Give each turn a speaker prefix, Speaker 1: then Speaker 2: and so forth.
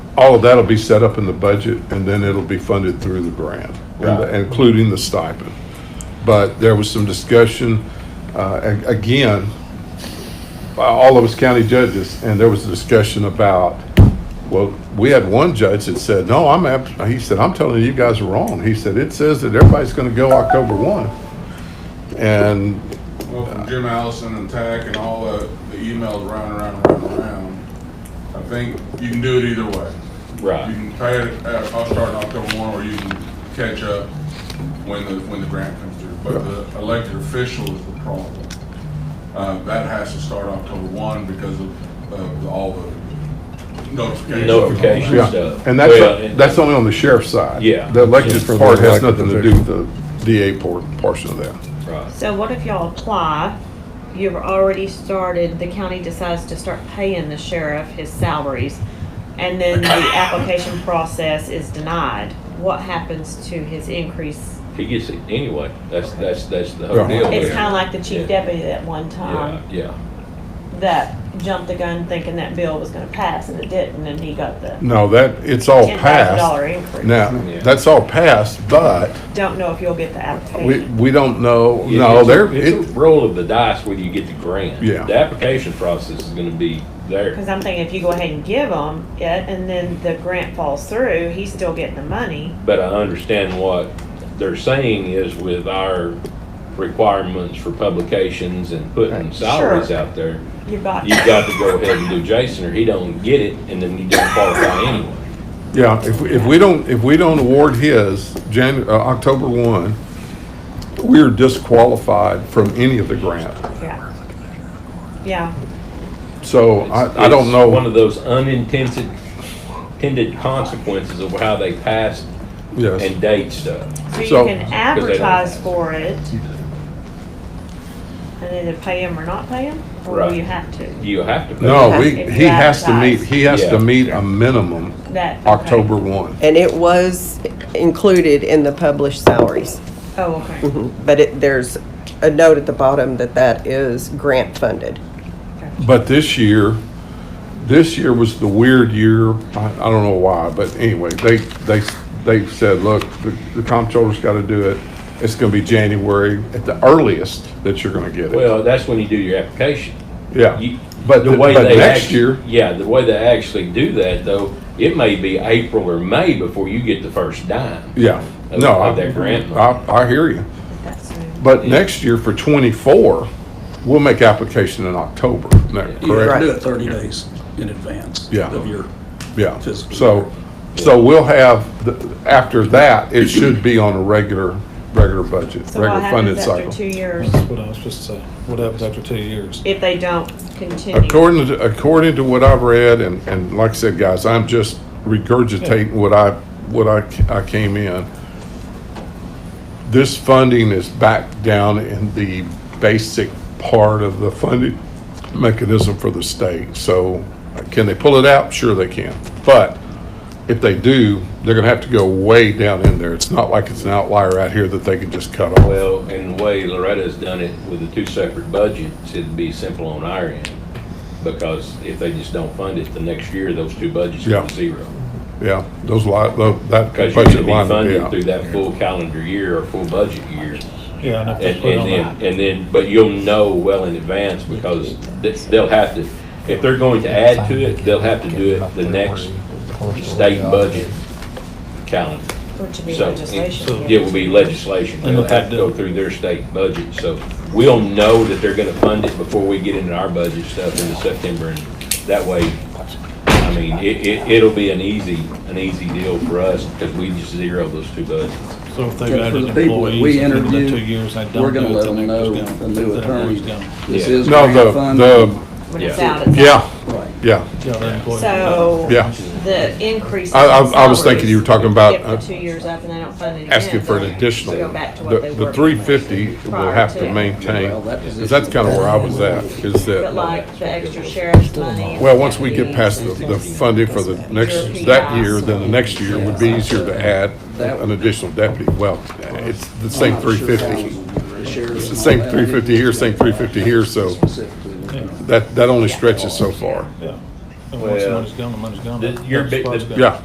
Speaker 1: all of that'll be set up in the budget, and then it'll be funded through the grant, and the- including the stipend. But there was some discussion, uh, a- again, by all of us county judges, and there was a discussion about, well, we had one judge that said, no, I'm, ab- he said, I'm telling you, you guys are wrong. He said, it says that everybody's gonna go October one. And
Speaker 2: Well, from Jim Allison and Tack and all the, the emails round, round, round, round, I think you can do it either way. You
Speaker 3: Right.
Speaker 2: can pay it, uh, I'll start in October one, or you can catch up when the, when the grant comes through. But the elected official is the problem. Uh, that has to start October one because of, of all the notifications.
Speaker 3: Notifications.
Speaker 1: Yeah,
Speaker 3: stuff.
Speaker 1: and
Speaker 3: Well,
Speaker 1: that's,
Speaker 3: and-
Speaker 1: that's only on the sheriff's side.
Speaker 3: Yeah.
Speaker 1: The elected
Speaker 4: Just for the
Speaker 1: part has
Speaker 4: elected
Speaker 1: nothing to do with the DA por- portion of that.
Speaker 3: Right.
Speaker 5: So what if y'all apply, you've already started, the county decides to start paying the sheriff his salaries, and then the application process is denied, what happens to his increase?
Speaker 3: He gets it anyway. That's, that's, that's the whole
Speaker 1: Right.
Speaker 3: deal.
Speaker 5: It's
Speaker 3: there.
Speaker 5: kinda like um, the chief
Speaker 3: Yeah.
Speaker 5: deputy at one
Speaker 3: Yeah,
Speaker 5: time,
Speaker 3: yeah.
Speaker 5: that jumped the gun thinking that bill was gonna pass, and it didn't, and he got the
Speaker 1: No, that, it's all
Speaker 5: ten thousand dollar
Speaker 1: Oh, passed.
Speaker 5: increase.
Speaker 1: Now,
Speaker 3: Yeah.
Speaker 1: that's all passed, but
Speaker 5: Don't know if you'll get the
Speaker 1: we,
Speaker 5: application.
Speaker 1: we don't know,
Speaker 3: It-
Speaker 1: no,
Speaker 3: it's a-
Speaker 1: there,
Speaker 3: It's a
Speaker 1: it,
Speaker 3: roll of the dice whether you get the grant.
Speaker 1: Yeah.
Speaker 3: The application process is gonna be there.
Speaker 5: Cause I'm thinking if you go ahead and give him it, and then the grant falls through, he's still getting the money.
Speaker 3: But I understand what they're saying is with our requirements for publications and putting salaries
Speaker 5: Sure.
Speaker 3: out there,
Speaker 5: You've got.
Speaker 3: you've got to go ahead and do Jason or he don't get it and then you don't qualify anyway.
Speaker 1: yeah, if, we- if we don't, if we don't award his Jan, uh, October one, we're disqualified from any of the grant.
Speaker 5: Yeah. Yeah,
Speaker 1: So I, I don't
Speaker 3: It's
Speaker 1: know.
Speaker 3: One of those unintended, intended consequences of how they pass
Speaker 1: Yes.
Speaker 3: and date stuff.
Speaker 5: so you
Speaker 1: So-
Speaker 5: can advertise for it and either pay him or not pay him, or
Speaker 3: Right.
Speaker 5: you have to.
Speaker 3: You have to. pay.
Speaker 1: No, we,
Speaker 5: If you
Speaker 1: he has to meet,
Speaker 5: advertise.
Speaker 1: he has
Speaker 3: Yeah.
Speaker 1: to meet a minimum
Speaker 5: That. okay.
Speaker 1: October one.
Speaker 4: And it was included in the published salaries,
Speaker 5: Oh, okay.
Speaker 1: Mm-hmm.
Speaker 4: but it, there's a note at the bottom that that is grant funded.
Speaker 1: But this year, this year was the weird year. I, I don't know why, but anyway, they, they, they said, look, the, the comptroller's gotta do it. It's gonna be January at the earliest that you're gonna get it.
Speaker 3: Well, that's when you do your application.
Speaker 1: Yeah.
Speaker 3: You-
Speaker 1: But,
Speaker 3: the
Speaker 1: th-
Speaker 3: way
Speaker 1: but
Speaker 3: they
Speaker 1: next
Speaker 3: actu-
Speaker 1: year,
Speaker 3: Yeah, the way they actually do that though, it may be April or May before you get the first dime.
Speaker 1: yeah,
Speaker 3: Of-
Speaker 1: no, I,
Speaker 3: of their grant money.
Speaker 1: I, I hear you.
Speaker 5: That's soon.
Speaker 1: But next year for twenty-four, we'll make application in October, isn't that
Speaker 6: You have
Speaker 1: correct?
Speaker 6: to do it 30 days in advance
Speaker 1: Yeah.
Speaker 6: of your,
Speaker 1: Yeah,
Speaker 6: Physical.
Speaker 1: so, so we'll have, the- after that, it should be on a regular, regular budget,
Speaker 5: So
Speaker 1: regular
Speaker 5: what
Speaker 1: funded
Speaker 5: happens after
Speaker 1: cycle.
Speaker 5: two years
Speaker 7: That's what I was just saying. What happens after two years?
Speaker 5: if they don't continue?
Speaker 1: According to, according to what I've read, and, and like I said, guys, I'm just regurgitating what I, what I, c- I came in. This funding is back down in the basic part of the funding mechanism for the state. So can they pull it out? Sure they can. But if they do, they're gonna have to go way down in there. It's not like it's an outlier out here that they can just cut off.
Speaker 3: Well, and the way Loretta's done it with the two separate budgets, it'd be simple on our end. Because if they just don't fund it, the next year, those two budgets
Speaker 1: Yeah.
Speaker 3: are zero.
Speaker 1: Yeah, those li, tho- that
Speaker 3: Because you're
Speaker 1: budget
Speaker 3: gonna be
Speaker 1: line,
Speaker 3: funded
Speaker 1: yeah.
Speaker 3: through that full calendar year or full budget year.
Speaker 7: Yeah, and if
Speaker 3: And,
Speaker 7: they put it on
Speaker 3: and
Speaker 7: that.
Speaker 3: then, and then, but you'll know well in advance because th- they'll have to, if they're going to add to it, they'll have to do it the next state budget calendar.
Speaker 5: Which would be
Speaker 3: So,
Speaker 5: legislation.
Speaker 3: It will be legislation. They'll have to go through their state budget, so we'll know that they're gonna fund it before we get into our budget stuff into September, and that way, I mean, it, it, it'll be an easy, an easy deal for us, because we just zero those two budgets.
Speaker 7: So if they've
Speaker 8: For the
Speaker 7: added
Speaker 8: people that
Speaker 7: employees
Speaker 8: we
Speaker 7: at the end of the two
Speaker 8: interview,
Speaker 7: years, they don't do it.
Speaker 8: we're gonna let
Speaker 7: then
Speaker 8: them
Speaker 7: they're
Speaker 8: know,
Speaker 7: just
Speaker 8: the
Speaker 7: gone.
Speaker 8: new
Speaker 7: Then they're
Speaker 8: attorney,
Speaker 7: just gone.
Speaker 8: this
Speaker 3: Yeah.
Speaker 8: is
Speaker 1: No,
Speaker 8: grant
Speaker 1: the,
Speaker 8: funded.
Speaker 1: the,
Speaker 5: When it's
Speaker 3: Yeah.
Speaker 5: out, it's out.
Speaker 1: yeah,
Speaker 8: Right.
Speaker 1: yeah,
Speaker 7: Yeah, their employees are gone.
Speaker 5: So.
Speaker 1: yeah.
Speaker 5: The increase.
Speaker 1: I- I-
Speaker 5: in
Speaker 1: I was thinking you were talking about,
Speaker 5: If the
Speaker 1: uh,
Speaker 5: two years up and they don't fund it again.
Speaker 1: asking for an
Speaker 5: they'll
Speaker 1: additional.
Speaker 5: Go back to what they
Speaker 1: The,
Speaker 5: were.
Speaker 1: the three fifty will
Speaker 5: prior
Speaker 1: have to
Speaker 5: it.
Speaker 1: maintain,
Speaker 8: Well, that
Speaker 1: 'cause that's kind of where I was at, is
Speaker 5: But
Speaker 1: that,
Speaker 5: like the extra sheriff's money.
Speaker 1: well, once we get past the, the funding for the next, that year, then the next year would be easier to add an additional deputy. Well, it's the same
Speaker 8: I'm not
Speaker 1: three
Speaker 8: sure
Speaker 1: fifty,
Speaker 8: thousands of shares and all
Speaker 1: same
Speaker 8: that.
Speaker 1: three fifty here, same three fifty here, so
Speaker 8: Specifically, we're gonna-
Speaker 1: that, that only stretches so far.
Speaker 7: Yeah.
Speaker 9: And once the
Speaker 3: Well,
Speaker 9: money's gone, the money's gone.
Speaker 3: The- your
Speaker 9: That
Speaker 3: big-
Speaker 9: spot's
Speaker 3: the-
Speaker 9: gone.
Speaker 1: Yeah.